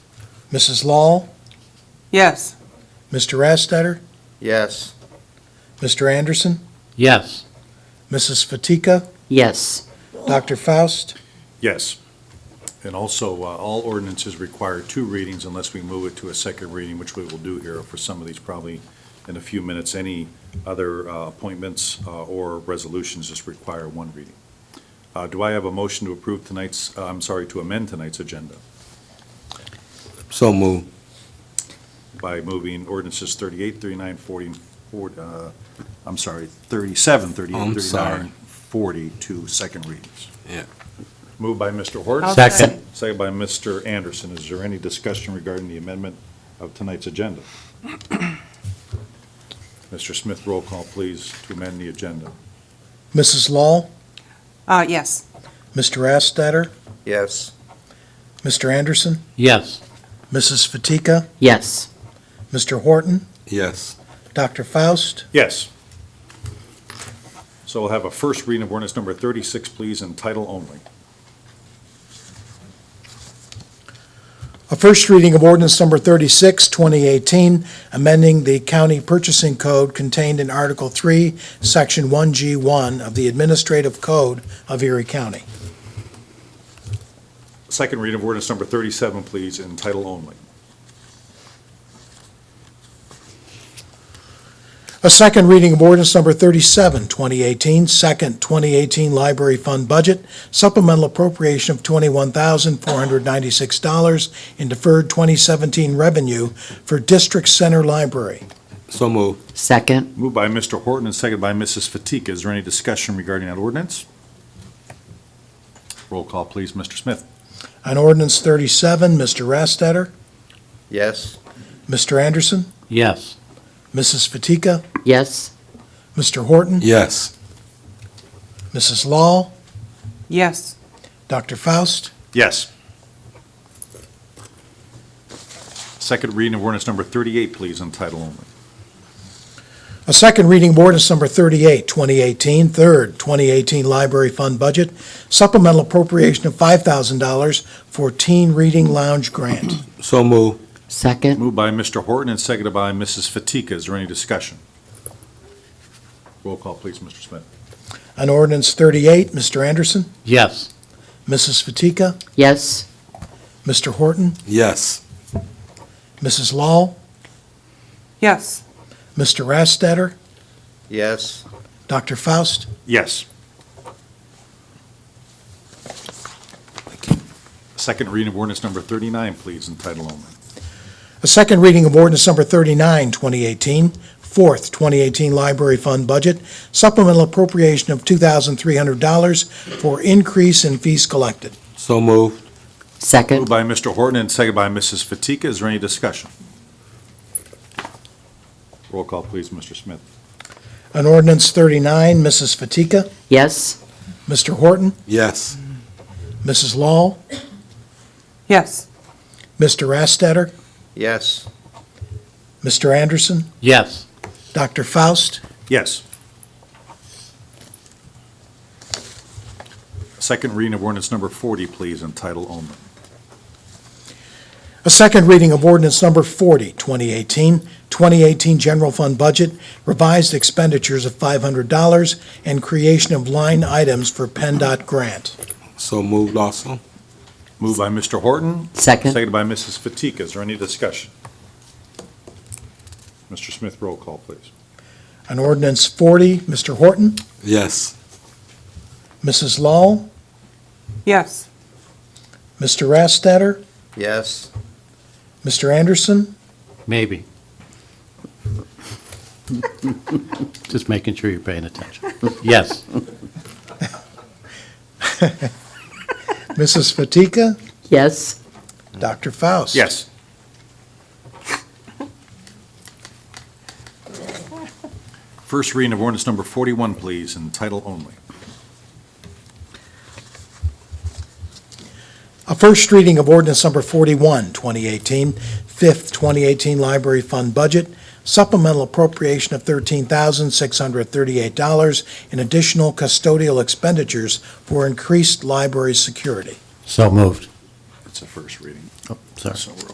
Mrs. Law, Yes. Mr. Rastetter, Yes. Mr. Anderson, Yes. Mrs. Fatika, Yes. Dr. Faust, Yes. And also, uh, all ordinances require two readings unless we move it to a second reading, which we will do here for some of these probably in a few minutes. Any other uh, appointments uh, or resolutions just require one reading. Uh, Do I have a motion to approve tonight's, uh, I'm sorry, to amend tonight's agenda So move. by moving ordinances 38, 39, 40, and 40, uh, I'm sorry, 37, 38, Oh, I'm 39, sorry. 40 to second readings? Yeah. Moved by Mr. Horst. I'll Second. Second by Mr. Anderson. Is there any discussion regarding the amendment of tonight's agenda? Mr. Smith, roll call, please, to amend the agenda. Mrs. Law, Uh, yes. Mr. Rastetter, Yes. Mr. Anderson, Yes. Mrs. Fatika, Yes. Mr. Horton, Yes. Dr. Faust, Yes. So we'll have a first reading of ordinance number 36, please, in title only. A first reading of ordinance number 36, 2018, amending the county purchasing code contained in Article 3, Section 1G1 of the Administrative Code of Erie County. Second reading of ordinance number 37, please, in title only. A second reading of ordinance number 37, 2018, second 2018 library fund budget, supplemental appropriation of $21,496 in deferred 2017 revenue for District Center Library. So move. Second. Moved by Mr. Horton and seconded by Mrs. Fatika. Is there any discussion regarding that ordinance? Roll call, please, Mr. Smith. On ordinance 37, Mr. Rastetter, Yes. Mr. Anderson, Yes. Mrs. Fatika, Yes. Mr. Horton, Yes. Mrs. Law, Yes. Dr. Faust, Yes. Second reading of ordinance number 38, please, in title only. A second reading of ordinance number 38, 2018, third 2018 library fund budget, supplemental appropriation of $5,000 for teen reading lounge grant. So move. Second. Moved by Mr. Horton and seconded by Mrs. Fatika. Is there any discussion? Roll call, please, Mr. Smith. On ordinance 38, Mr. Anderson, Yes. Mrs. Fatika, Yes. Mr. Horton, Yes. Mrs. Law, Yes. Mr. Rastetter, Yes. Dr. Faust, Yes. Second reading of ordinance number 39, please, in title only. A second reading of ordinance number 39, 2018, fourth 2018 library fund budget, supplemental appropriation of $2,300 for increase in fees collected. So move. Second. Moved by Mr. Horton and seconded by Mrs. Fatika. Is there any discussion? Roll call, please, Mr. Smith. On ordinance 39, Mrs. Fatika, Yes. Mr. Horton, Yes. Mrs. Law, Yes. Mr. Rastetter, Yes. Mr. Anderson, Yes. Dr. Faust, Yes. Second reading of ordinance number 40, please, in title only. A second reading of ordinance number 40, 2018, 2018 general fund budget, revised expenditures of $500, and creation of line items for PennDOT grant. So moved also. Moved by Mr. Horton, Second. seconded by Mrs. Fatika. Is there any discussion? Mr. Smith, roll call, please. On ordinance 40, Mr. Horton, Yes. Mrs. Law, Yes. Mr. Rastetter, Yes. Mr. Anderson, Maybe. Just making sure you're paying attention. Yes. Mrs. Fatika, Yes. Dr. Faust. Yes. First reading of ordinance number 41, please, in title only. A first reading of ordinance number 41, 2018, fifth 2018 library fund budget, supplemental appropriation of $13,638 in additional custodial expenditures for increased library security. So moved. It's a first reading. Sorry. So we're